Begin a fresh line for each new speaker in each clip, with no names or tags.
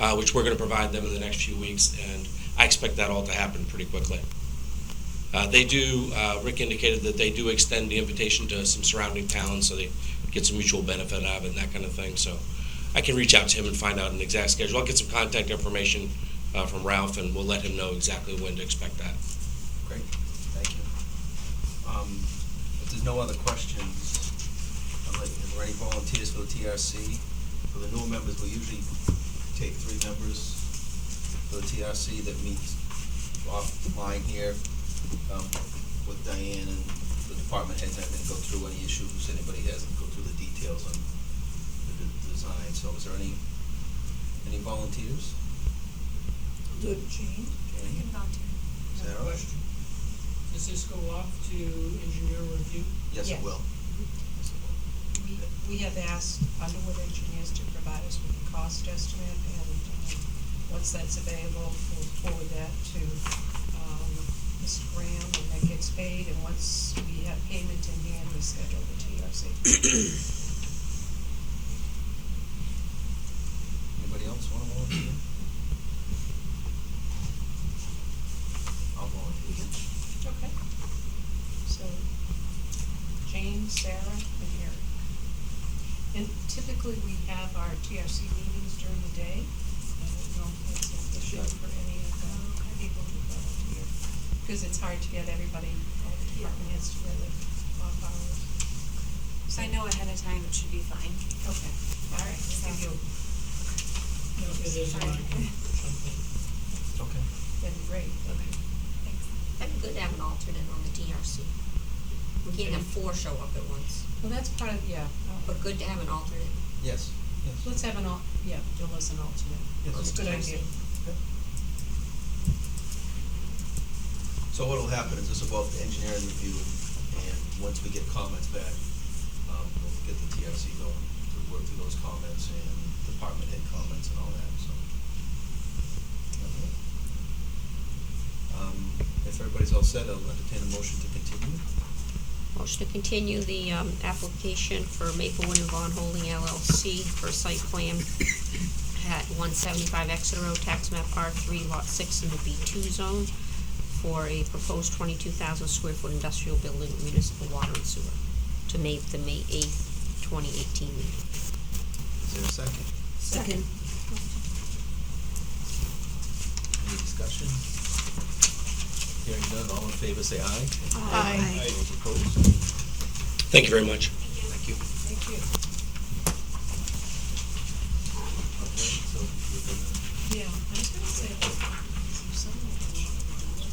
uh, which we're going to provide them in the next few weeks, and I expect that all to happen pretty quickly. Uh, They do, uh, Rick indicated that they do extend the invitation to some surrounding towns, so they get some mutual benefit out of it and that kind of thing, so I can reach out to him and find out an exact schedule. I'll get some contact information uh, from Ralph, and we'll let him know exactly when to expect that.
Great, thank you. Um, If there's no other questions, I'd like- is there any volunteers for the TRC? For the new members, we usually take three members for the TRC that meets offline here um, with Diane and the department heads, I think, go through any issues anybody has and go through the details on the de- design. So is there any, any volunteers?
Good, Jane.
Jane, Is that all right?
Question, does this go off to engineer review?
Yes, it
Yes. Mm-hmm.
will. Yes, it will.
We, we have asked Underwood Engineers to provide us with a cost estimate, and, um, once that's available, we'll forward that to, um, Mr. Graham when that gets paid, and once we have payment in hand, we schedule the TRC.
Anybody else want to volunteer? I'll volunteer.
Okay. So, Jane, Sarah, and Eric. And typically, we have our TRC meetings during the day. I don't know if that's an issue for any of the people who volunteer. Because it's hard to get everybody, all the department heads together off hours.
So I know ahead of time it should be fine.
Okay, all right, so
Sounds
you,
No, it is not.
Sorry.
Something.
Okay.
that'd be great.
Okay. Thanks.
That'd be good to have an alternate on the DRC. We can't have four show up at once,
Well, that's part of, yeah, uh,
but good to have an alternate.
Yes, yes.
let's have an al, yeah, Joe's an alternate.
Yes.
That's a good idea.
So what'll happen is this will go up to engineering review, and once we get comments back, um, we'll get the TRC going to work through those comments and department head comments and all that, so. Um, if everybody's all set, I'll entertain a motion to continue.
Motion to continue the um, application for Maplewood and Vaughn Holding LLC for a site plan at one seventy-five Exeter Road, tax map R three, lot six in the B two zone for a proposed twenty-two thousand square foot industrial building, municipal water and sewer, to make the May eighth, twenty eighteen meeting.
Is there a second?
Second.
Any discussion? Hearing none, all in favor, say aye.
Aye.
Those opposed?
Thank you very much.
Thank you.
Thank you.
Okay, so we're gonna-
Yeah, I was gonna say, that if someone would want to do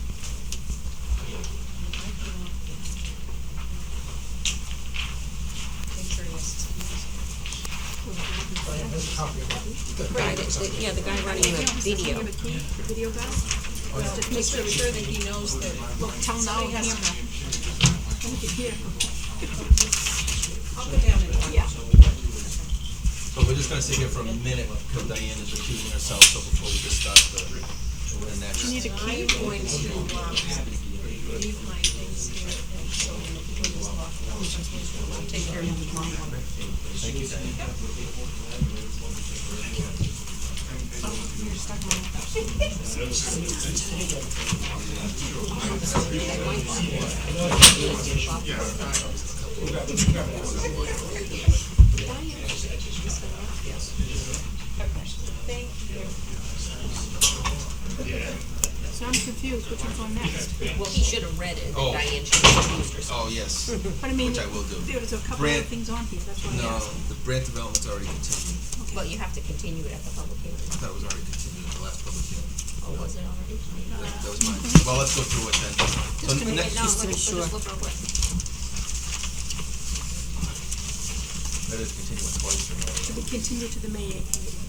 it, it might be not- Interest.
Right, the- yeah, the guy running the video.
Well, to make sure that he knows that. Look, tell now camera. I'll go down and. Yeah.
So we're just gonna sit here for a minute, because Diane is recusing herself, so before we just start the, we're in that.
I'm going to, um, leave my things here and so we'll just walk around. I'll take care of him tomorrow.
Thank you, Diane.
Thank you.
So I'm confused, which one's on next?
Well, he should have read it,
Oh.
and Diane should have used
Oh,
herself.
yes.
But I mean,
Which I will do.
there's a couple
Brand-
of things on here, that's why I
No,
asked.
the brand development's already continued.
Well, you have to continue it at the public
I
hearing.
thought it was already continued at the last public hearing.
Oh, was it already?
That that was mine. Well, let's go through it then. So
Just to make,
next-
no, let's let's just look real quick.
That is continuing twice in a row.
Should we continue to the May eighth meeting?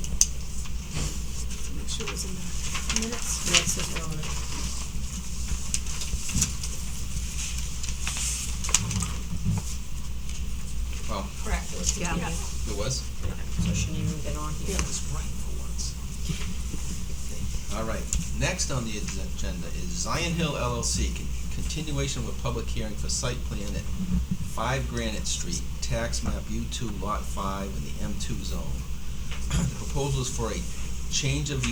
Make sure it's in the minutes.
Wow,
Correct, it was.
Yeah.
it was?
So she didn't even get on here.
was right for once. All right, next on the agenda is Zion Hill LLC, con- continuation of a public hearing for site plan at five Granite Street, tax map U two lot five in the M two zone. The proposal is for a change of the